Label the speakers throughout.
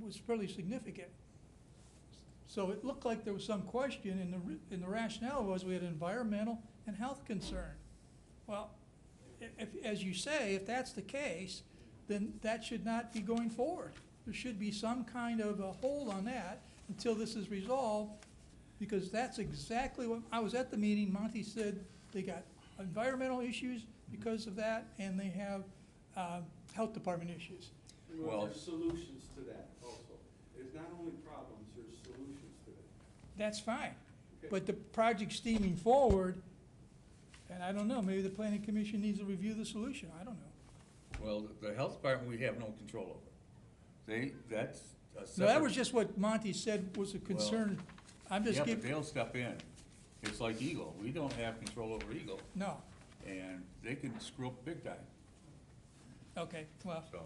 Speaker 1: was fairly significant. So it looked like there was some question, and the, re- and the rationale was we had an environmental and health concern. Well, i- if, as you say, if that's the case, then that should not be going forward. There should be some kind of a hold on that until this is resolved, because that's exactly what, I was at the meeting, Monty said they got environmental issues because of that, and they have, uh, health department issues.
Speaker 2: Well-
Speaker 3: Well, there's solutions to that also. There's not only problems, there's solutions to it.
Speaker 1: That's fine.
Speaker 3: Okay.
Speaker 1: But the project's steaming forward, and I don't know, maybe the planning commission needs to review the solution, I don't know.
Speaker 2: Well, the- the health department, we have no control over. They, that's a separate.
Speaker 1: No, that was just what Monty said was a concern. I'm just
Speaker 2: Yeah, but
Speaker 1: giving,
Speaker 2: they'll step in. It's like Eagle. We don't have control over Eagle,
Speaker 1: no,
Speaker 2: and they could screw up big time,
Speaker 1: okay, well,
Speaker 2: so.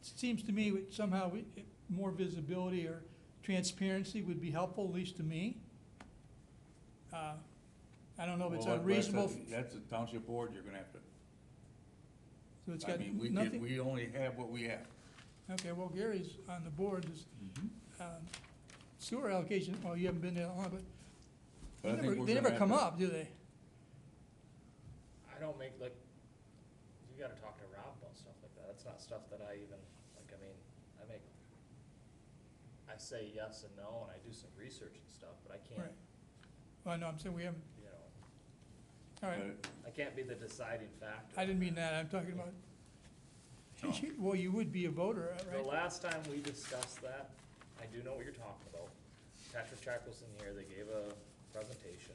Speaker 1: it seems to me we- somehow we- it- more visibility or transparency would be helpful, at least to me. Uh, I don't know if it's
Speaker 2: Well, that's a-
Speaker 1: unreasonable,
Speaker 2: That's a township board, you're gonna have to,
Speaker 1: so it's
Speaker 2: I
Speaker 1: got
Speaker 2: mean, we can,
Speaker 1: nothing,
Speaker 2: we only have what we have.
Speaker 1: okay, well, Gary's on the board, Does,
Speaker 2: Mm-hmm.
Speaker 1: um, sewer allocation, well, you haven't been there long, but
Speaker 2: But I
Speaker 1: They
Speaker 2: think
Speaker 1: never,
Speaker 2: we're
Speaker 1: they
Speaker 2: gonna
Speaker 1: never
Speaker 2: have
Speaker 1: come
Speaker 2: to-
Speaker 1: up, do they?
Speaker 4: I don't make, like, you gotta talk to Rob about stuff like that, that's not stuff that I even, like, I mean, I make, I say yes and no, and I do some research and stuff, but I
Speaker 1: Right.
Speaker 4: can't,
Speaker 1: Well, no, I'm saying we haven't,
Speaker 4: you know,
Speaker 1: all right.
Speaker 2: but-
Speaker 4: I can't be the deciding factor.
Speaker 1: I didn't mean that, I'm talking about,
Speaker 2: No.
Speaker 1: well, you would be a voter,
Speaker 4: The
Speaker 1: right?
Speaker 4: last time we discussed that, I do know what you're talking about. Patrick Chack was in here, they gave a presentation,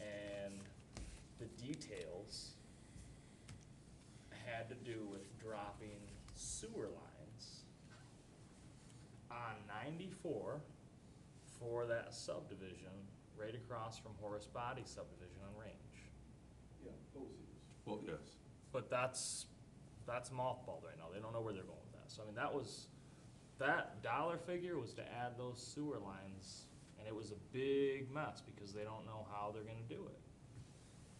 Speaker 4: and the details had to do with dropping sewer lines on ninety-four for that subdivision right across from Horace Body subdivision on Range.
Speaker 3: Yeah, those issues.
Speaker 2: Well, yes.
Speaker 4: But that's, that's mothballed right now, they don't know where they're going with that, so I mean, that was, that dollar figure was to add those sewer lines, and it was a big mess, because they don't know how they're gonna do it.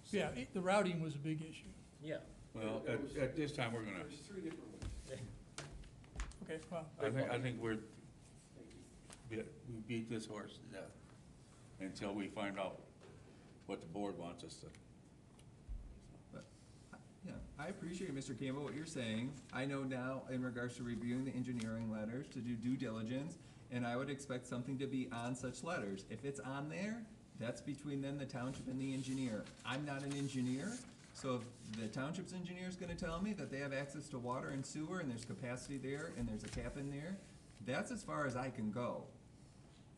Speaker 4: So-
Speaker 1: Yeah, it- the routing was a big issue,
Speaker 4: Yeah,
Speaker 2: Well,
Speaker 3: There
Speaker 2: at,
Speaker 3: was-
Speaker 2: at this time, we're gonna,
Speaker 3: There's three different ways.
Speaker 1: okay, well,
Speaker 2: I think, I think we're,
Speaker 3: Thank you.
Speaker 2: we we beat this horse to death until we find out what the board wants us to.
Speaker 5: Yeah, I appreciate, Mr. Campbell, what you're saying. I know now in regards to reviewing the engineering letters to do due diligence, and I would expect something to be on such letters. If it's on there, that's between then the township and the engineer. I'm not an engineer, so if the township's engineer is gonna tell me that they have access to water and sewer and there's capacity there and there's a cap in there, that's as far as I can go.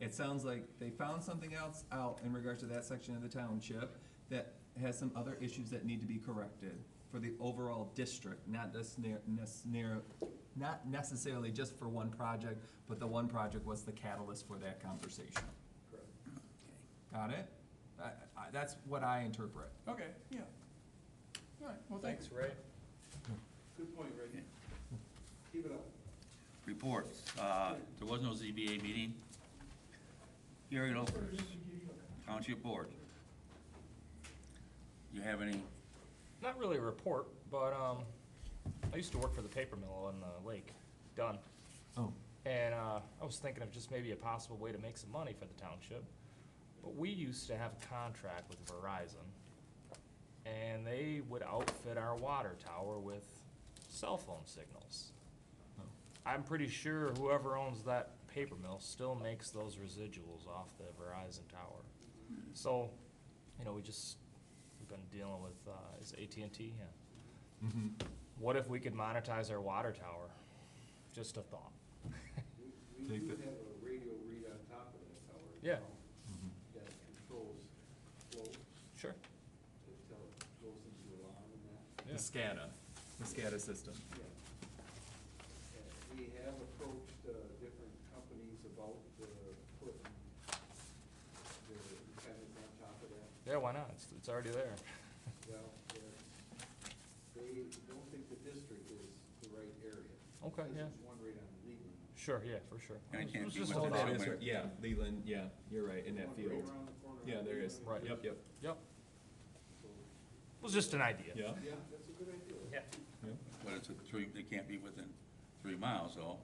Speaker 5: It sounds like they found something else out in regards to that section of the township that has some other issues that need to be corrected for the overall district, not just near, nes- near, not necessarily just for one project, but the one project was the catalyst for that conversation.
Speaker 3: Correct.
Speaker 5: Got it? I, I, that's what I interpret.
Speaker 1: okay, yeah. All right, well, thanks.
Speaker 4: thanks, Ray.
Speaker 3: Good point, Rick. Keep it up.
Speaker 2: Reports, uh, there was no ZBA meeting. Gary Lopers, Township Board. You have any,
Speaker 4: Not really a report, but, um, I used to work for the paper mill on the lake, done.
Speaker 5: Oh.
Speaker 4: And uh, I was thinking of just maybe a possible way to make some money for the township. But we used to have a contract with Verizon, and they would outfit our water tower with cell phone signals.
Speaker 5: Oh.
Speaker 4: I'm pretty sure whoever owns that paper mill still makes those residuals off the Verizon tower. So, you know, we just, we've been dealing with, uh, is AT&T, yeah.
Speaker 5: Mm-hmm.
Speaker 4: What if we could monetize our water tower? Just a thought.
Speaker 3: We- We
Speaker 5: Take
Speaker 3: do
Speaker 5: that.
Speaker 3: have a radio read on top of that tower.
Speaker 4: Yeah.
Speaker 3: now That controls flow,
Speaker 4: Sure.
Speaker 3: that tell, goes into alarm and that.
Speaker 5: The SCADA, the SCADA system.
Speaker 3: Yeah. Uh, We have approached uh, different companies about the putting the antennas on top of that.
Speaker 4: Yeah, why not? It's, it's already there.
Speaker 3: Well, they're- they don't think the district is the right area.
Speaker 4: Okay,
Speaker 3: Because
Speaker 4: yeah.
Speaker 3: There's one right on Leland.
Speaker 4: Sure, yeah, for sure.
Speaker 2: And it
Speaker 4: It
Speaker 2: can't
Speaker 4: was
Speaker 2: be
Speaker 4: just a
Speaker 2: without
Speaker 5: Oh,
Speaker 4: thought.
Speaker 5: that
Speaker 2: somebody.
Speaker 5: is right, yeah, Leland, yeah, you're right, in that
Speaker 3: One right
Speaker 5: field.
Speaker 3: around the corner on
Speaker 5: Yeah, there is.
Speaker 3: Leland.
Speaker 4: Right.
Speaker 5: Yep, yep,
Speaker 4: Yep,
Speaker 3: So,
Speaker 4: it was just an idea.
Speaker 5: yeah,
Speaker 3: Yeah, that's a good idea.
Speaker 4: Yeah.
Speaker 5: yeah.
Speaker 2: but it's a three, they can't be within three miles, though.